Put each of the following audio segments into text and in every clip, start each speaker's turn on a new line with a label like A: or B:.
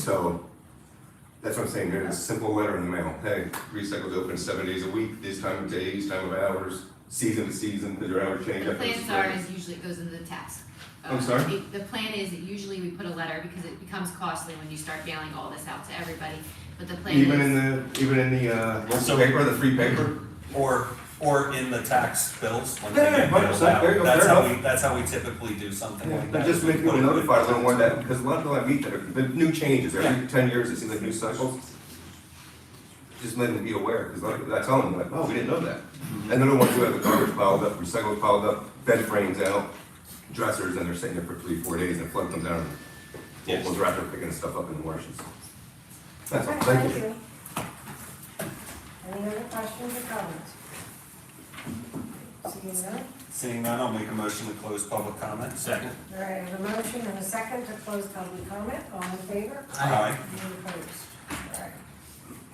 A: so, that's what I'm saying, there's a simple letter in the mail, hey, recycle's open seven days a week, this time of day, these time of hours, season to season, because your hours change
B: The
A: after the
B: plans are,
A: spring.
B: is usually it goes into the tax.
A: I'm
B: Uh,
A: sorry?
B: it- The plan is that usually we put a letter because it becomes costly when you start mailing all this out to everybody, but the plan
A: Even in
B: is,
A: the, even in the, uh, local
C: So-
A: paper, the free paper,
C: Or, or in the tax bills when they
A: Yeah, yeah,
C: get billed
A: 100%, there you
C: out.
A: go,
C: That's
A: fair
C: how we,
A: enough.
C: that's how we typically do something like
A: but
C: that.
A: just make
C: We put
A: people
C: it-
A: notified a little more that, because a lot of people I meet that, are- the new changes, every ten years, it seems like new cycles. Just let them be aware, because like, I tell them, like, oh, we didn't know that. And they're the ones who have the garbage piled up, recycled piled up, bed frames out, dressers, and they're sitting there for three, four days, and flood comes down, and
C: Yes.
A: locals are out there picking stuff up in the washes. That's all,
D: Okay,
A: thank you.
D: Any other questions or comments? Seeing none,
C: Seeing none, I'll make a motion to close public comment. Second.
D: all right, I have a motion and a second to close public comment, all in favor?
C: Aye.
D: Any opposed? All right.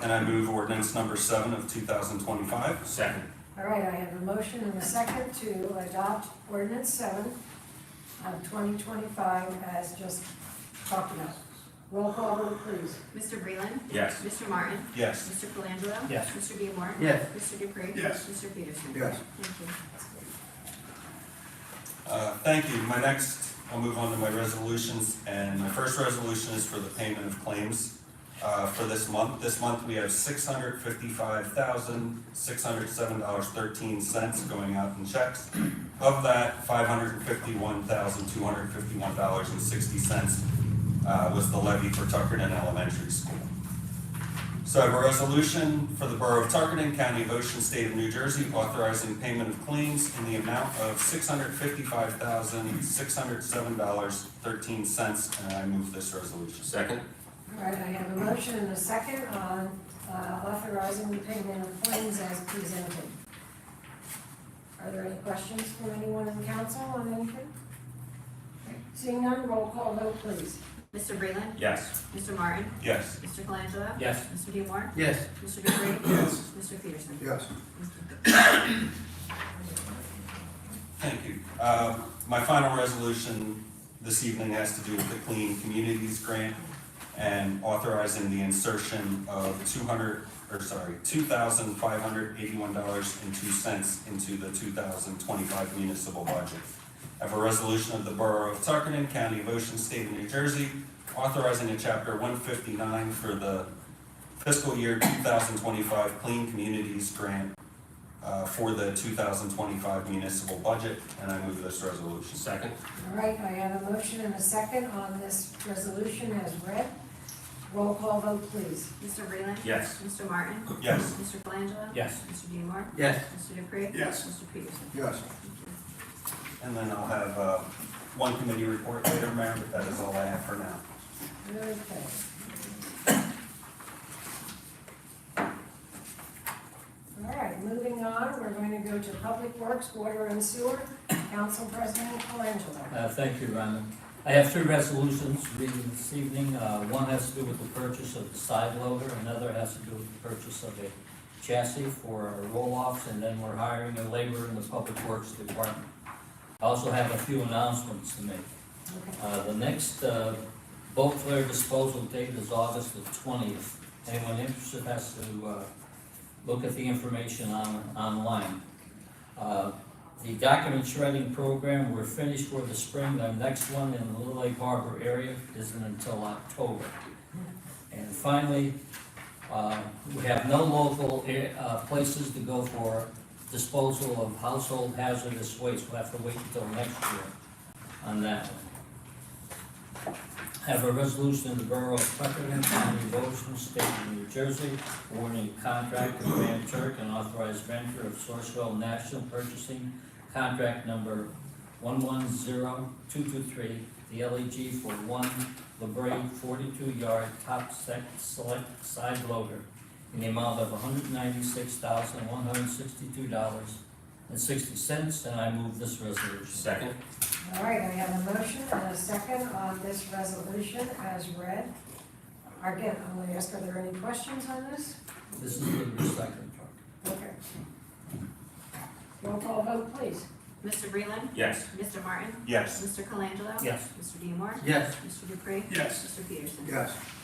C: And I move ordinance number seven of two thousand twenty-five. Second.
D: All right, I have a motion and a second to adopt ordinance seven of twenty twenty-five as just talked about. Roll call vote, please.
B: Mr. Breland.
C: Yes.
B: Mr. Martin.
C: Yes.
B: Mr. Colangelo.
E: Yes.
B: Mr. Diemar.
E: Yes.
B: Mr. Dupree.
C: Yes.
B: Mr. Peterson.
A: Yes.
B: Thank you.
C: Uh, Thank you. My next, I'll move on to my resolutions, and my first resolution is for the payment of claims uh, for this month. This month, we have six hundred fifty-five thousand, six hundred seven dollars thirteen cents going out in checks. Of that, five hundred fifty-one thousand, two hundred fifty-one dollars and sixty cents uh, was the levy for Tuckerton Elementary School. So I have a resolution for the Borough of Tuckerton, County of Ocean, State of New Jersey, authorizing payment of claims in the amount of six hundred fifty-five thousand, six hundred seven dollars, thirteen cents, and I move this resolution. Second.
D: All right, I have a motion and a second on uh, authorizing the payment of claims as presented. Are there any questions from anyone in council on anything? Seeing none, roll call vote, please.
B: Mr. Breland.
C: Yes.
B: Mr. Martin.
C: Yes.
B: Mr. Colangelo.
E: Yes.
B: Mr. Diemar.
E: Yes.
B: Mr. Dupree. Yes. Mr. Peterson.
A: Yes.
C: Thank you. Uh, My final resolution this evening has to do with the Clean Communities Grant and authorizing the insertion of two hundred, or sorry, two thousand five hundred eighty-one dollars and two cents into the two thousand twenty-five municipal budget. I have a resolution of the Borough of Tuckerton, County of Ocean, State of New Jersey, authorizing a chapter one fifty-nine for the fiscal year two thousand twenty-five Clean Communities Grant uh, for the 2025 municipal budget, and I move this resolution. Second.
D: All right, I have a motion and a second on this resolution as read. Roll call vote, please.
B: Mr. Breland.
C: Yes.
B: Mr. Martin.
C: Yes.
B: Mr. Colangelo.
E: Yes.
B: Mr. Diemar.
E: Yes.
B: Mr. Dupree.
C: Yes.
B: Mr. Peterson.
A: Yes.
B: Thank you.
C: And then I'll have uh, one committee report later, Mayor, but that is all I have for now.
D: Okay. All right, moving on, we're going to go to Public Works, Water and Sewer, Council President Colangelo.
E: Uh, Thank you, Rhonda. I have three resolutions reading this evening. Uh, One has to do with the purchase of the side loader, another has to do with the purchase of a chassis for our roll-offs, and then we're hiring a laborer in the Public Works Department. I also have a few announcements to make.
D: Okay.
E: Uh, The next uh, boat flare disposal date is August the twentieth. Anyone interested has to uh, look at the information on, online. Uh, The document shredding program, we're finished for the spring. The next one in the Little Lake Harbor area isn't until October. And finally, uh, we have no local eh, uh, places to go for disposal of household hazardous waste. We'll have to wait until next year on that one. Have a resolution in the Borough of Tuckerton, County of Ocean, State of New Jersey, awarding a contract to Van Turk and authorized vendor of Sourcewell National Purchasing, contract number one-one-zero-two-two-three, the LEG for one LeBray forty-two yard top sec, select side loader in the amount of hundred ninety-six thousand, one hundred sixty-two dollars and sixty cents, and I move this resolution.
C: Second.
D: All right, I have a motion and a second on this resolution as read. Again, I'm going to ask, are there any questions on this?
E: This is the recycling part.
D: Okay. Roll call vote, please.
B: Mr. Breland.
C: Yes.
B: Mr. Martin.
C: Yes.
B: Mr. Colangelo.
E: Yes.
B: Mr. Diemar.
E: Yes.
B: Mr. Dupree.
C: Yes.
B: Mr. Peterson.
A: Yes.